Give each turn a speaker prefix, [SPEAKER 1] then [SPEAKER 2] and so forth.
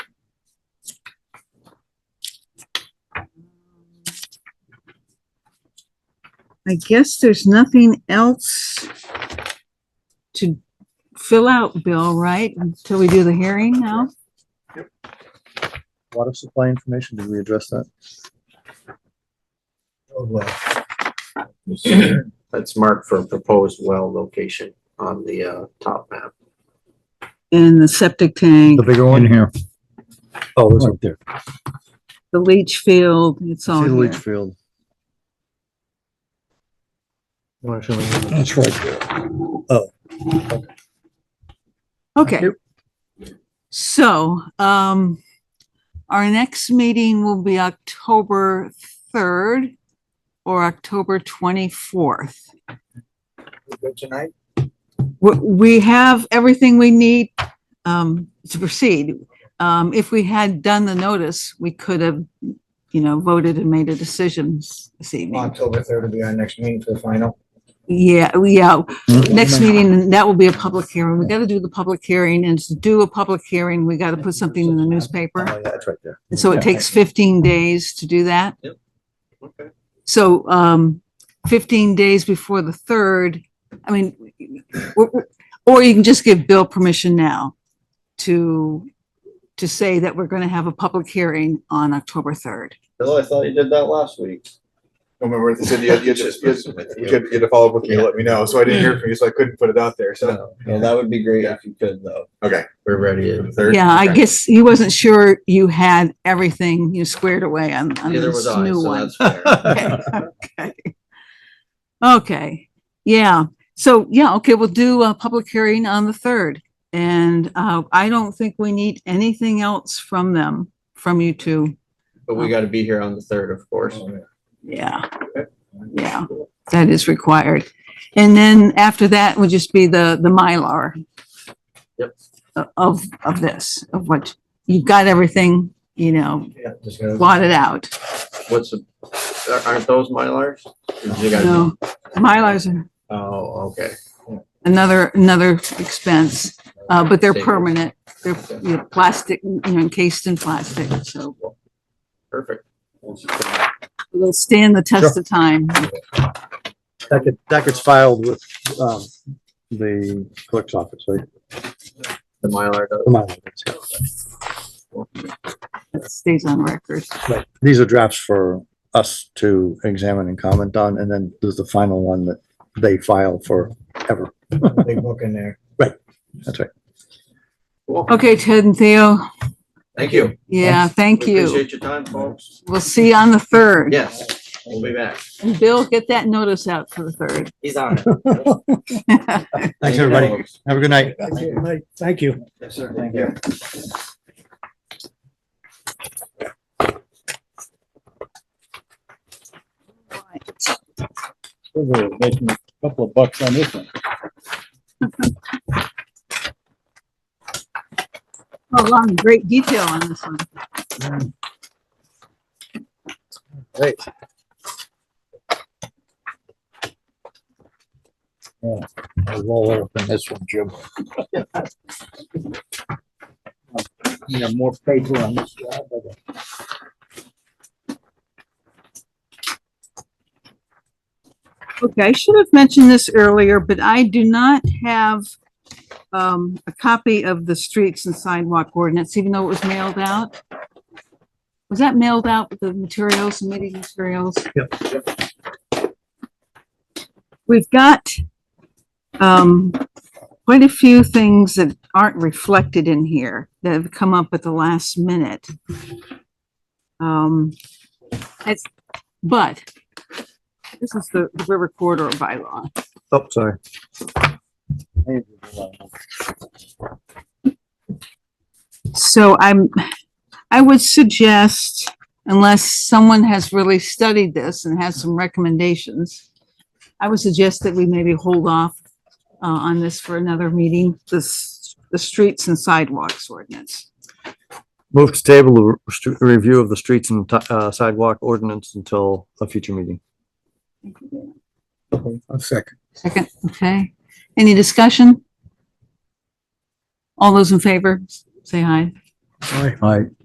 [SPEAKER 1] I guess there's nothing else to fill out, Bill, right? Until we do the hearing now?
[SPEAKER 2] Water supply information, did we address that?
[SPEAKER 3] Oh,
[SPEAKER 4] That's marked for proposed well location on the uh top map.
[SPEAKER 1] And the septic tank,
[SPEAKER 2] The bigger one? here. Oh, it's up there.
[SPEAKER 1] the leach field, it's all
[SPEAKER 2] See the leach
[SPEAKER 1] here.
[SPEAKER 2] field.
[SPEAKER 5] That's right there.
[SPEAKER 1] Okay. So, um, our next meeting will be October third or October twenty-fourth.
[SPEAKER 4] Good tonight?
[SPEAKER 1] we, we have everything we need, um, to proceed. Um, if we had done the notice, we could have, you know, voted and made a decision s- this evening.
[SPEAKER 6] October third will be our next meeting for the final.
[SPEAKER 1] Yeah, we- yeah, next meeting, that will be a public hearing. We gotta do the public hearing and to do a public hearing, we gotta put something in the newspaper.
[SPEAKER 2] yeah, it's right there.
[SPEAKER 1] And So it takes fifteen days to do that.
[SPEAKER 4] Okay.
[SPEAKER 1] So, um, fifteen days before the third, I mean, or, or you can just give Bill permission now to, to say that we're gonna have a public hearing on October third.
[SPEAKER 3] Bill, I thought you did that last week.
[SPEAKER 6] I remember what they said, you had, you had, you had- you had- you had to follow up with me, let me know, so I didn't hear from you, so I couldn't put it out there, so.
[SPEAKER 3] Well, that would be great if you could, though.
[SPEAKER 6] Okay.
[SPEAKER 4] We're ready.
[SPEAKER 6] for the third?
[SPEAKER 1] Yeah, I
[SPEAKER 6] Okay.
[SPEAKER 1] guess he wasn't sure you had everything you squared away on, on
[SPEAKER 4] Neither
[SPEAKER 1] this
[SPEAKER 4] was I,
[SPEAKER 1] new
[SPEAKER 4] so
[SPEAKER 1] one.
[SPEAKER 4] that's fair.
[SPEAKER 1] Okay. Okay, yeah, so, yeah, okay, we'll do a public hearing on the third. And, uh, I don't think we need anything else from them, from you two.
[SPEAKER 4] But we gotta be here on the third, of course.
[SPEAKER 6] Oh,
[SPEAKER 1] Yeah, yeah, that is required. And then after that would just be the, the Mylar.
[SPEAKER 4] Yep.
[SPEAKER 1] o- Of, of this, of what, you've got everything, you know,
[SPEAKER 6] Yeah, just gonna-
[SPEAKER 1] blotted out.
[SPEAKER 4] What's, the- aren't those Mylars? You gotta-
[SPEAKER 1] No, Mylars are
[SPEAKER 4] Oh, okay.
[SPEAKER 1] another, another expense, uh, but they're
[SPEAKER 4] Same.
[SPEAKER 1] permanent. They're, you know, plastic, you know, encased in plastic, so
[SPEAKER 4] Perfect.
[SPEAKER 1] they'll stand the test of time.
[SPEAKER 2] That gets, that gets filed with, um, the clerk's office, right?
[SPEAKER 4] The Mylar does.
[SPEAKER 2] Come on.
[SPEAKER 1] It stays on record.
[SPEAKER 2] Right. These are drafts for us to examine and comment on, and then there's the final one that they file forever.
[SPEAKER 6] Big book in there.
[SPEAKER 2] That's right.
[SPEAKER 4] Cool.
[SPEAKER 1] Okay, Ted and Theo,
[SPEAKER 4] Thank you.
[SPEAKER 1] yeah, thank
[SPEAKER 4] We
[SPEAKER 1] you.
[SPEAKER 4] Appreciate your time, folks.
[SPEAKER 1] We'll see you on the third.
[SPEAKER 4] Yes, we'll be back.
[SPEAKER 1] And Bill, get that notice out for the third.
[SPEAKER 4] He's on it.
[SPEAKER 2] Thanks, everybody. Have a good night.
[SPEAKER 5] Thank you.
[SPEAKER 4] Yes, sir.
[SPEAKER 6] Thank you.
[SPEAKER 5] We're making a couple of bucks on this one.
[SPEAKER 1] Oh, wow, great detail on this one.
[SPEAKER 5] I'll roll over on this one, Jim. Yeah, more paper on this. job, I got-
[SPEAKER 1] Okay, I should have mentioned this earlier, but I do not have um, a copy of the streets and sidewalk ordinance, even though it was mailed out. Was that mailed out with the materials, the meeting materials? Yep. We've got um, quite a few things that aren't reflected in here that have come up at the last minute. Um, it's, but this is the the river corridor bylaw.
[SPEAKER 2] Oh, sorry.
[SPEAKER 1] So I'm, I would suggest, unless someone has really studied this and has some recommendations, I would suggest that we maybe hold off uh, on this for another meeting, this, the streets and sidewalks ordinance.
[SPEAKER 2] Move to table the re- review of the streets and ti- uh, sidewalk ordinance until a future meeting.
[SPEAKER 5] A second.
[SPEAKER 1] Second, okay. Any discussion? All those in favor, say aye.
[SPEAKER 5] All right.
[SPEAKER 2] All right.